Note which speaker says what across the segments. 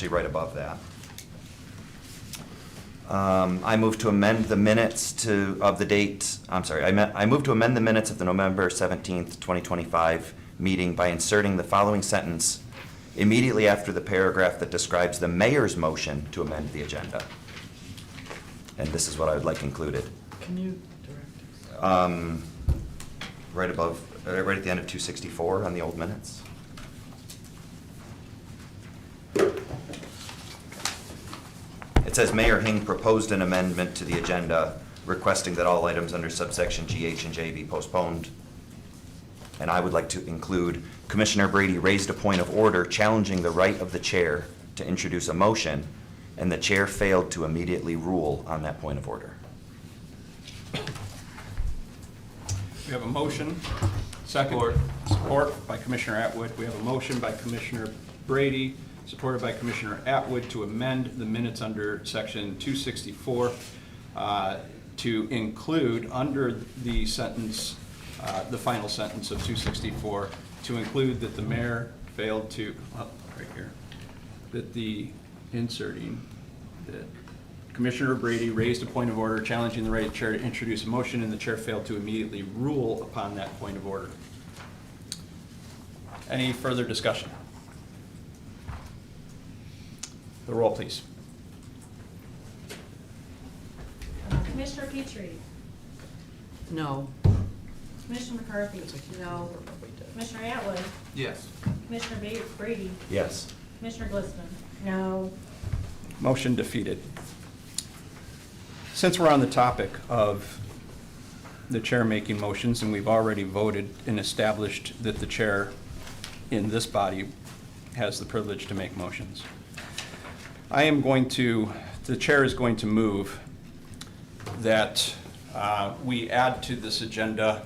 Speaker 1: actually right above that. Um, I move to amend the minutes to, of the date, I'm sorry, I meant, I move to amend the minutes of the November 17th, 2025 meeting by inserting the following sentence immediately after the paragraph that describes the mayor's motion to amend the agenda. And this is what I would like included.
Speaker 2: Can you direct us?
Speaker 1: Um, Right above, uh, right at the end of 264 on the old minutes. It says Mayor Hing proposed an amendment to the agenda requesting that all items under subsection GH and J be postponed. And I would like to include Commissioner Brady raised a point of order challenging the right of the chair to introduce a motion, and the chair failed to immediately rule on that point of order.
Speaker 3: We have a motion, second, support by Commissioner Atwood. We have a motion by Commissioner Brady, supported by Commissioner Atwood to amend the minutes under section 264 uh, to include, under the sentence, uh, the final sentence of 264, to include that the mayor failed to, oh, right here, that the, inserting, that Commissioner Brady raised a point of order challenging the right of chair to introduce a motion, and the chair failed to immediately rule upon that point of order. Any further discussion? The roll, please.
Speaker 4: Uh, Commissioner Petrie,
Speaker 2: No.
Speaker 4: Commissioner McCarthy, no. Commissioner Atwood,
Speaker 5: Yes.
Speaker 4: Commissioner Ba- Brady,
Speaker 1: Yes.
Speaker 4: Commissioner Glistman, no.
Speaker 3: Motion defeated. Since we're on the topic of the chair making motions, and we've already voted and established that the chair in this body has the privilege to make motions, I am going to, the chair is going to move that uh, we add to this agenda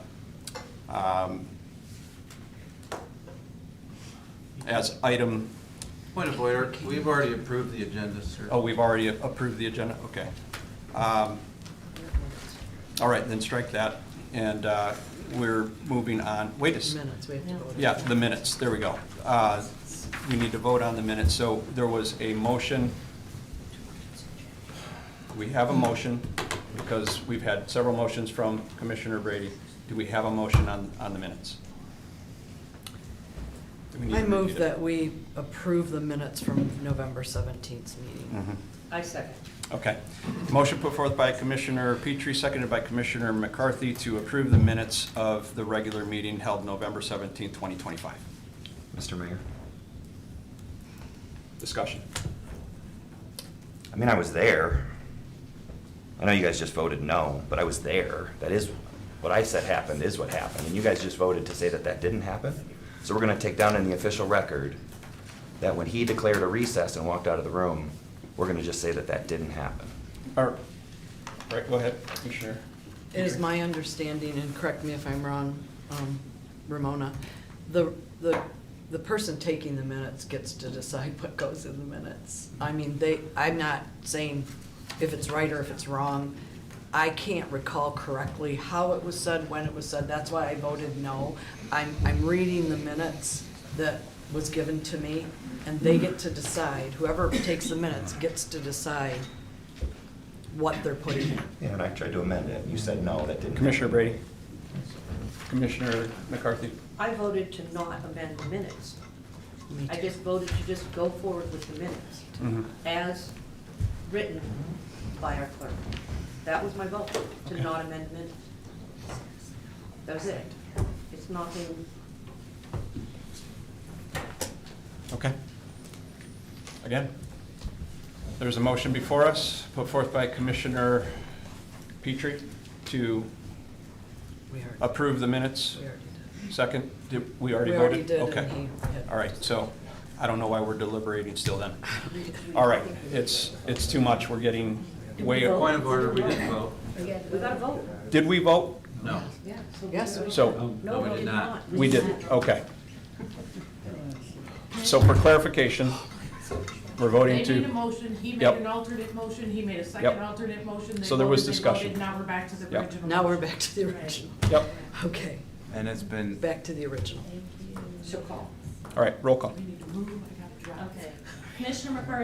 Speaker 3: um, as item,
Speaker 5: Point of order, we've already approved the agenda, sir.
Speaker 3: oh, we've already approved the agenda, okay. Um, All right, then strike that, and uh, we're moving on, wait a s-
Speaker 2: Minutes, we have to vote.
Speaker 3: yeah, the minutes, there we go. Uh, We need to vote on the minutes, so there was a motion. We have a motion, because we've had several motions from Commissioner Brady. Do we have a motion on, on the minutes? Do we need to
Speaker 2: I move
Speaker 3: repeat it?
Speaker 2: that we approve the minutes from November 17th meeting.
Speaker 3: Mhm.
Speaker 6: I second.
Speaker 3: Okay. Motion put forth by Commissioner Petrie, seconded by Commissioner McCarthy to approve the minutes of the regular meeting held November 17, 2025.
Speaker 1: Mr. Mayor?
Speaker 3: Discussion.
Speaker 1: I mean, I was there. I know you guys just voted no, but I was there. That is, what I said happened is what happened, and you guys just voted to say that that didn't happen? So we're gonna take down in the official record that when he declared a recess and walked out of the room, we're gonna just say that that didn't happen.
Speaker 3: Or, right, go ahead, Commissioner.
Speaker 2: It is my understanding, and correct me if I'm wrong, um, Ramona, the, the, the person taking the minutes gets to decide what goes in the minutes. I mean, they, I'm not saying if it's right or if it's wrong. I can't recall correctly how it was said, when it was said, that's why I voted no. I'm, I'm reading the minutes that was given to me, and they get to decide, whoever takes the minutes gets to decide what they're putting in.
Speaker 1: Yeah, and I tried to amend it, and you said no, that didn't.
Speaker 3: Commissioner Brady. Commissioner McCarthy.
Speaker 6: I voted to not amend the minutes.
Speaker 2: Me
Speaker 6: I
Speaker 2: too.
Speaker 6: just voted to just go forward with the minutes
Speaker 3: Mm-hmm.
Speaker 6: as written by our clerk. That was my vote, to
Speaker 3: Okay.
Speaker 6: not amend the minutes. That was it. It's nothing,
Speaker 3: Okay. Again, there's a motion before us, put forth by Commissioner Petrie to
Speaker 2: We already-
Speaker 3: approve the minutes.
Speaker 2: we already
Speaker 3: Second, did, we already
Speaker 2: We already
Speaker 3: voted?
Speaker 2: did, and
Speaker 3: Okay.
Speaker 2: he had-
Speaker 3: All right, so I don't know why we're deliberating still then.
Speaker 2: did.
Speaker 3: All right, it's, it's too much, we're getting way.
Speaker 5: Point of order, we didn't vote.
Speaker 6: we got a vote.
Speaker 3: Did we vote?
Speaker 5: No.
Speaker 6: Yeah.
Speaker 2: Yes, we
Speaker 3: So,
Speaker 6: No, we did not.
Speaker 3: we did, okay. So for clarification, we're voting
Speaker 7: They made a
Speaker 3: to,
Speaker 7: motion, he made
Speaker 3: Yep.
Speaker 7: an alternate motion, he made a second
Speaker 3: Yep.
Speaker 7: alternate motion. they
Speaker 3: So there was
Speaker 7: voted, they voted,
Speaker 3: discussion.
Speaker 7: Now we're back to the
Speaker 3: Yep.
Speaker 7: original.
Speaker 2: Now we're
Speaker 7: motion.
Speaker 2: back to the original.
Speaker 3: yep,
Speaker 2: Okay,
Speaker 5: And it's been,
Speaker 2: back to the original.
Speaker 6: So call.
Speaker 3: all right, roll call.
Speaker 7: We need to move, I gotta drive.
Speaker 4: Okay. Commissioner McCarthy.